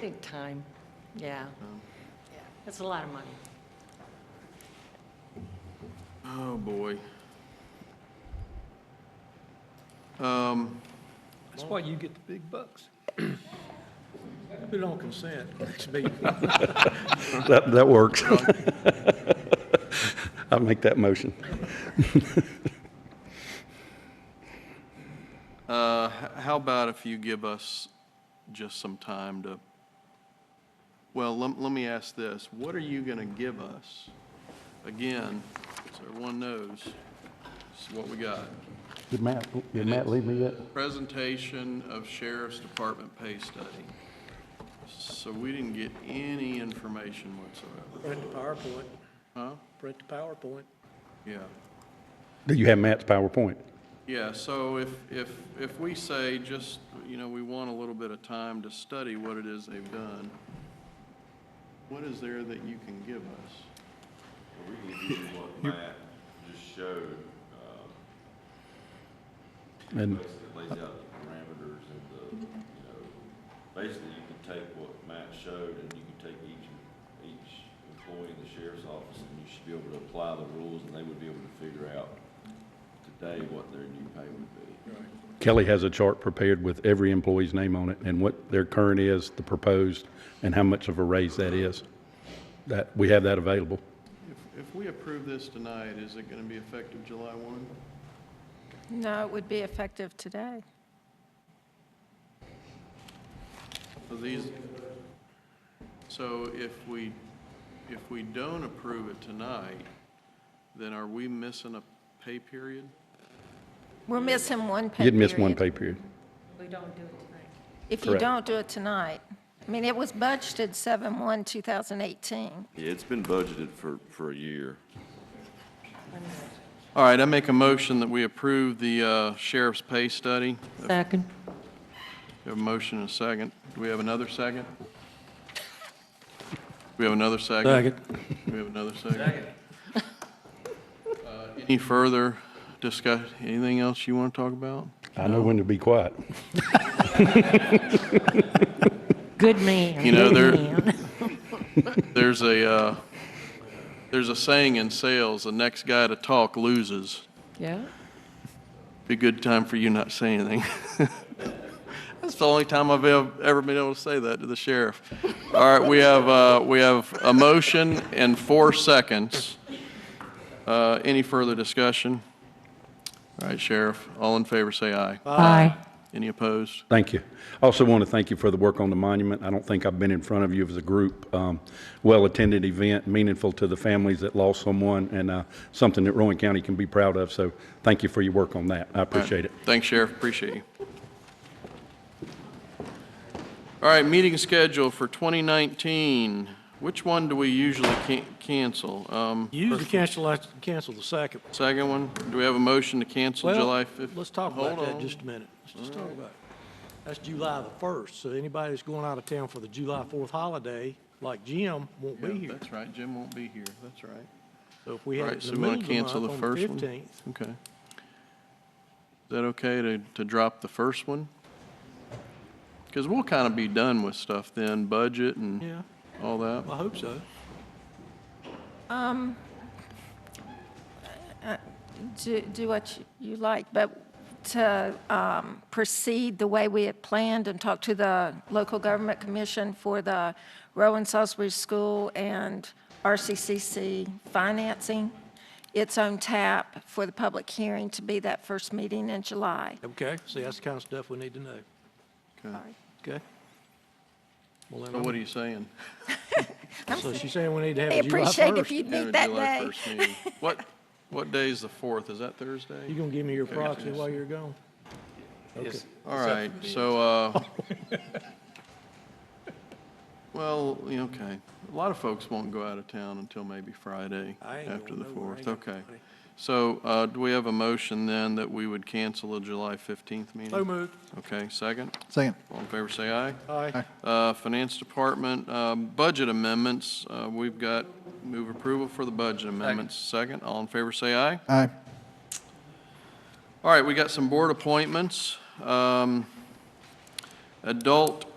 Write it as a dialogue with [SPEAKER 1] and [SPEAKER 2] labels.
[SPEAKER 1] Big time, yeah. That's a lot of money.
[SPEAKER 2] Oh, boy. Um,
[SPEAKER 3] That's why you get the big bucks.
[SPEAKER 4] Put it on consent, next meeting.
[SPEAKER 5] That, that works. I'll make that motion.
[SPEAKER 2] uh, h- How about if you give us just some time to, well, let let me ask this. What are you going to give us? Again, so everyone knows, this is what we got.
[SPEAKER 5] Did Matt, did Matt leave me yet?
[SPEAKER 2] Presentation of Sheriff's Department pay study. So we didn't get any information whatsoever.
[SPEAKER 4] Print the PowerPoint,
[SPEAKER 2] Huh?
[SPEAKER 4] print the PowerPoint.
[SPEAKER 2] Yeah.
[SPEAKER 5] Do you have Matt's PowerPoint?
[SPEAKER 2] Yeah, so if, if, if we say just, you know, we want a little bit of time to study what it is they've done, what is there that you can give us?
[SPEAKER 6] We can give you what Matt just showed, um,
[SPEAKER 5] And
[SPEAKER 6] basically it lays out the parameters and the, you know, basically you can take what Matt showed and you can take each, each employee in the sheriff's office and you should be able to apply the rules and they would be able to figure out today what their new pay would be.
[SPEAKER 5] Kelly has a chart prepared with every employee's name on it and what their current is, the proposed, and how much of a raise that is. That, we have that available.
[SPEAKER 2] If, if we approve this tonight, is it gonna be effective July one?
[SPEAKER 7] No, it would be effective today.
[SPEAKER 2] So these, so if we, if we don't approve it tonight, then are we missing a pay period?
[SPEAKER 7] We're missing one pay
[SPEAKER 5] You'd miss one
[SPEAKER 7] period.
[SPEAKER 5] pay period.
[SPEAKER 1] We don't do it tonight.
[SPEAKER 7] If you
[SPEAKER 5] Correct.
[SPEAKER 7] don't do it tonight. I mean, it was budgeted 7/1/2018.
[SPEAKER 6] Yeah, it's been budgeted for, for a year.
[SPEAKER 2] All right, I make a motion that we approve the uh, sheriff's pay study.
[SPEAKER 1] Second.
[SPEAKER 2] We have a motion and a second. Do we have another second? We have another second? We have another second? Second. Uh, Any further discuss, anything else you want to talk about?
[SPEAKER 5] I know when to be quiet.
[SPEAKER 1] Good man.
[SPEAKER 2] You know,
[SPEAKER 1] good
[SPEAKER 2] there-
[SPEAKER 1] man.
[SPEAKER 2] There's a, uh, there's a saying in sales, the next guy to talk loses.
[SPEAKER 1] Yeah,
[SPEAKER 2] Be a good time for you not to say anything. That's the only time I've ev- ever been able to say that to the sheriff. All right, we have, uh, we have a motion and four seconds. Uh, Any further discussion? All right, Sheriff, all in favor, say aye.
[SPEAKER 1] aye.
[SPEAKER 2] Any opposed?
[SPEAKER 5] Thank you. Also want to thank you for the work on the monument. I don't think I've been in front of you as a group. Um, Well-attended event, meaningful to the families that lost someone, and uh, something that Rowan County can be proud of. So thank you for your work on that. I appreciate it.
[SPEAKER 2] Thanks, Sheriff, appreciate you. All right, meeting schedule for 2019. Which one do we usually can- cancel? Um,
[SPEAKER 4] Usually cancel, last- cancel the second.
[SPEAKER 2] Second one, do we have a motion to cancel
[SPEAKER 4] Well,
[SPEAKER 2] July 5th?
[SPEAKER 4] Let's talk about
[SPEAKER 2] Hold
[SPEAKER 4] that
[SPEAKER 2] on.
[SPEAKER 4] just a minute. Let's just talk about it. That's July the 1st, so anybody that's going out of town for the July 4th holiday, like Jim, won't be
[SPEAKER 2] Yeah,
[SPEAKER 4] here.
[SPEAKER 2] That's right, Jim won't be here, that's right.
[SPEAKER 4] So if we
[SPEAKER 2] All
[SPEAKER 4] had
[SPEAKER 2] right,
[SPEAKER 4] it
[SPEAKER 2] so
[SPEAKER 4] in the
[SPEAKER 2] we want
[SPEAKER 4] middle
[SPEAKER 2] to
[SPEAKER 4] of
[SPEAKER 2] cancel
[SPEAKER 4] the month,
[SPEAKER 2] the
[SPEAKER 4] on the
[SPEAKER 2] first one?
[SPEAKER 4] 15th.
[SPEAKER 2] Okay. Is that okay to, to drop the first one? Because we'll kind of be done with stuff then, budget and
[SPEAKER 4] Yeah,
[SPEAKER 2] all that.
[SPEAKER 4] I hope so.
[SPEAKER 7] Do do what you- you like, but to um, proceed the way we had planned and talk to the local government commission for the Rowan Salisbury School and RCCC financing, its own tap for the public hearing to be that first meeting in July.
[SPEAKER 4] Okay, see, that's the kind of stuff we need to know,
[SPEAKER 2] Okay.
[SPEAKER 4] okay? Well,
[SPEAKER 2] So
[SPEAKER 4] then,
[SPEAKER 2] what are you saying?
[SPEAKER 4] I'm- so she's saying we need to have
[SPEAKER 7] I
[SPEAKER 4] a July
[SPEAKER 7] appreciate if
[SPEAKER 4] 1st.
[SPEAKER 7] you'd
[SPEAKER 2] Have a
[SPEAKER 7] meet that
[SPEAKER 2] July
[SPEAKER 7] day.
[SPEAKER 2] 1st meeting. What, what day is the 4th? Is that
[SPEAKER 4] You
[SPEAKER 2] Thursday?
[SPEAKER 4] gonna give me your
[SPEAKER 2] Okay.
[SPEAKER 4] proxy while you're gone? Okay.
[SPEAKER 2] All right, so, uh, well, yeah, okay. A lot of folks won't go out of town until maybe Friday
[SPEAKER 4] I ain't
[SPEAKER 2] after
[SPEAKER 4] going
[SPEAKER 2] the
[SPEAKER 4] nowhere. I
[SPEAKER 2] 4th.
[SPEAKER 4] ain't got
[SPEAKER 2] Okay.
[SPEAKER 4] money.
[SPEAKER 2] So uh, do we have a motion then that we would cancel the July 15th meeting?
[SPEAKER 4] So moved.
[SPEAKER 2] Okay, second.
[SPEAKER 8] Second.
[SPEAKER 2] All in favor, say aye.
[SPEAKER 4] Aye.
[SPEAKER 2] Uh, Finance Department, um, budget amendments, uh, we've got, move approval for the budget amendments. Second, all in favor, say aye.
[SPEAKER 8] Aye.
[SPEAKER 2] All right, we got some board appointments. Um, Adult